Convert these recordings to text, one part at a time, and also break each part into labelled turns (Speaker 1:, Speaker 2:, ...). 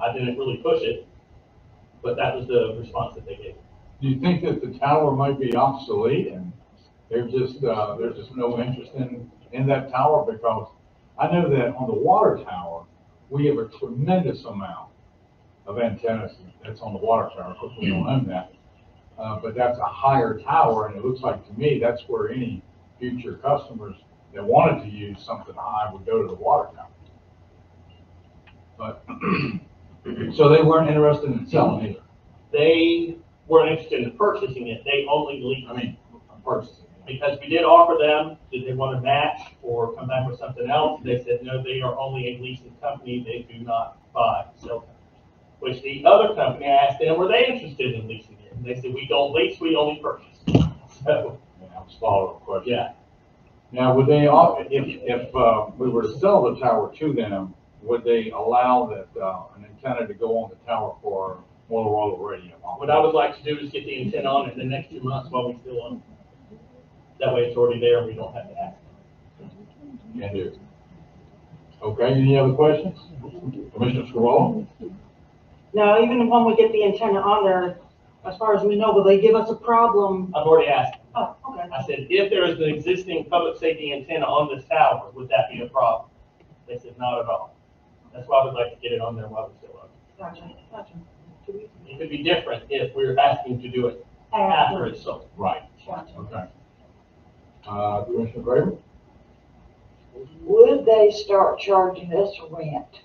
Speaker 1: I didn't really push it, but that was the response that they gave.
Speaker 2: Do you think that the tower might be obsolete and they're just, uh, there's just no interest in, in that tower? Because I know that on the water tower, we have a tremendous amount of antennas that's on the water tower. Of course, we don't own that. Uh, but that's a higher tower and it looks like to me, that's where any future customers that wanted to use something high would go to the water tower. But, so they weren't interested in selling either.
Speaker 1: They weren't interested in purchasing it, they only leased.
Speaker 2: I mean, purchasing.
Speaker 1: Because we did offer them, did they want to match or come back with something else? They said, no, they are only a leasing company, they do not buy, so. Which the other company, I asked them, were they interested in leasing it? And they said, we don't lease, we only purchase. So,
Speaker 2: Yeah, that was a follow-up question.
Speaker 1: yeah,
Speaker 2: Now, would they, all- if, if uh, we were to sell the tower to them, would they allow that, uh, an antenna to go on the tower for Motorola radio?
Speaker 1: what I would like to do is get the intent on it in the next two months while we still own it. That way it's already there, and we don't have to ask.
Speaker 2: Can do. Okay, any other questions? Commissioner Scarroll?
Speaker 3: Now, even when we get the antenna on there, as far as we know, will they give us a problem?
Speaker 1: I've already asked,
Speaker 3: Oh, okay.
Speaker 1: I said, if there is an existing public safety antenna on this tower, would that be a problem? They said, not at all. That's why we'd like to get it on there while we still own
Speaker 3: Gotcha, gotcha. Do we-
Speaker 1: it. It could be different if we're asking to do it after it's sold.
Speaker 2: Right,
Speaker 3: Gotcha.
Speaker 2: okay. Uh, Commissioner Graber?
Speaker 4: Would they start charging us rent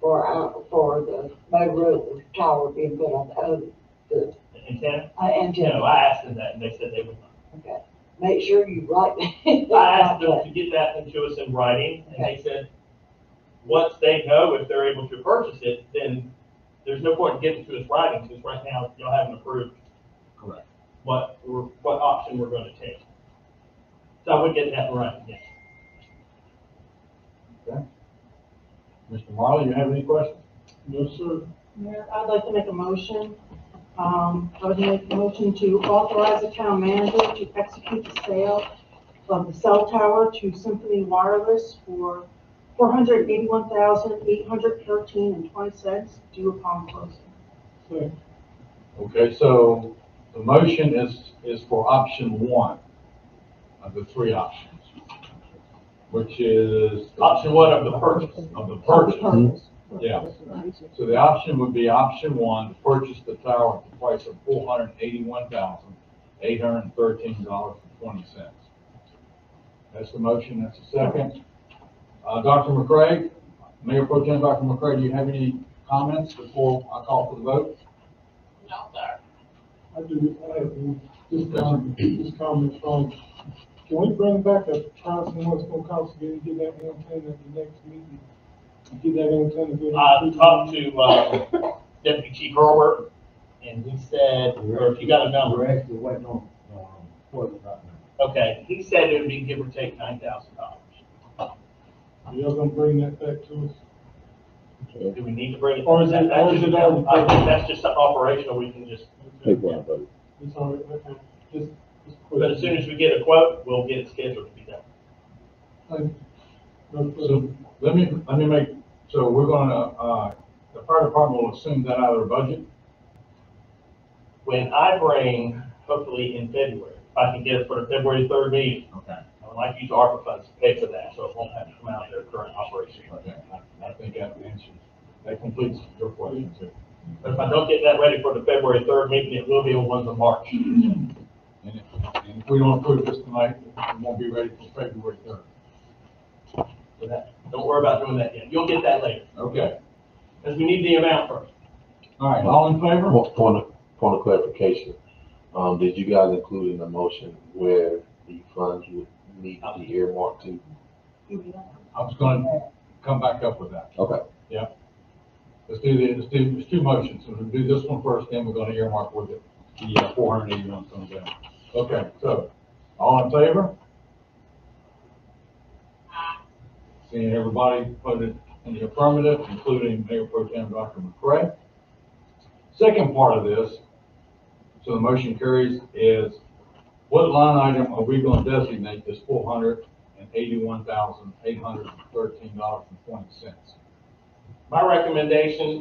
Speaker 4: for our, for the Motorola tower being put on the other, the
Speaker 1: The Antenna?
Speaker 4: uh,
Speaker 1: No,
Speaker 4: antenna?
Speaker 1: I asked them that and they said they would not.
Speaker 4: Okay, make sure you write that.
Speaker 1: I asked them to get that into us in writing and they said, once they know if they're able to purchase it, then there's no point in getting to us writing because right now y'all haven't approved
Speaker 2: Correct.
Speaker 1: what, we're- what option we're going to take. So I would get that in writing, yes.
Speaker 2: Mr. Marley, you have any questions?
Speaker 5: No, sir.
Speaker 3: Mayor, I'd like to make a motion. Um, I would make a motion to authorize the town manager to execute the sale of the cell tower to Symphony Wireless for four hundred eighty-one thousand, eight hundred thirteen and twenty cents due upon closing.
Speaker 2: Okay, so the motion is, is for option one of the three options, which is.
Speaker 1: Option one of the purchase.
Speaker 2: Of the purchase, Mm-hmm. yeah. So the option would be option one, to purchase the tower at the price of four hundred and eighty-one thousand, eight hundred and thirteen dollars and twenty cents. That's the motion, that's the second. Uh, Dr. McCray, Mayor Pro Tem Dr. McCray, do you have any comments before I call for the vote?
Speaker 5: I do, I have one. this comment, this comment from, can we bring back a price and what's gonna cost to get, get that antenna at the next meeting? Get that antenna. get it-
Speaker 1: I talked to, uh, Deputy Chief Herbert, and he said, or if you got a number,
Speaker 6: We're actually waiting on, um, Portland right now.
Speaker 1: okay, he said it would be give or take nine thousand dollars.
Speaker 5: Y'all gonna bring that back to us?
Speaker 1: Do we need to bring it?
Speaker 5: Or is it-
Speaker 1: That's
Speaker 5: or is
Speaker 1: just-
Speaker 5: it all-
Speaker 1: I think that's just something operational, we can just,
Speaker 5: Okay.
Speaker 7: People are voting.
Speaker 5: It's all right, okay, just, just. quick.
Speaker 1: but as soon as we get a quote, we'll get it scheduled to be done.
Speaker 5: Thank you.
Speaker 2: So let me, let me make, so we're gonna, uh, the fire department will assume that out of their budget?
Speaker 1: When I bring, hopefully in February, if I can get it for the February third meeting,
Speaker 2: Okay.
Speaker 1: I would like to use ARPA funds to pay for that, so it won't have to come out of their current operation.
Speaker 2: Okay, I, I think that answers, that completes your question too.
Speaker 1: But if I don't get that ready for the February third meeting, it will be on one of March.
Speaker 2: And if- and if we don't approve this tonight, it won't be ready for February third.
Speaker 1: for that. Don't worry about doing that yet. You'll get that later,
Speaker 2: Okay,
Speaker 1: because we need the amount first.
Speaker 2: all right, all in favor?
Speaker 7: Point, point of, point of clarification, um, did you guys include in the motion where the funds would need to be earmarked to?
Speaker 2: I was gonna come back up with that.
Speaker 7: Okay.
Speaker 2: Yep. Let's do the, let's do, there's two motions, so we'll do this one first, then we're gonna earmark with it, the uh, four hundred eighty-one comes down. Okay, so, all in favor? Seeing everybody voted in the affirmative, including Mayor Pro Tem Dr. McCray. Second part of this, so the motion carries, is what line item are we gonna designate this four hundred and eighty-one thousand, eight hundred and thirteen dollars and twenty cents?
Speaker 1: My recommendation